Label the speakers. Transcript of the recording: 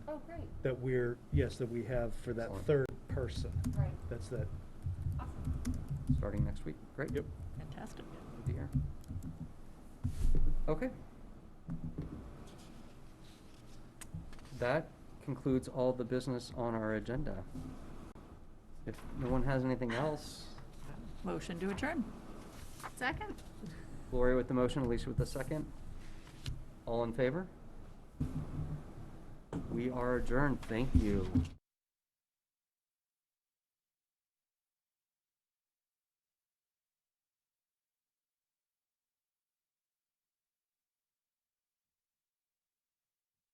Speaker 1: Oh, great,
Speaker 2: that we're, yes, that we have for that
Speaker 3: Excellent.
Speaker 2: third person.
Speaker 1: right,
Speaker 2: That's that,
Speaker 1: awesome,
Speaker 3: starting next week. Great.
Speaker 2: yep.
Speaker 4: Fantastic.
Speaker 3: Good to hear. Okay. That concludes all the business on our agenda. If no one has anything else,
Speaker 4: Motion to adjourn.
Speaker 1: second?
Speaker 3: Gloria with the motion, Alicia with the second. All in favor? We are adjourned. Thank you.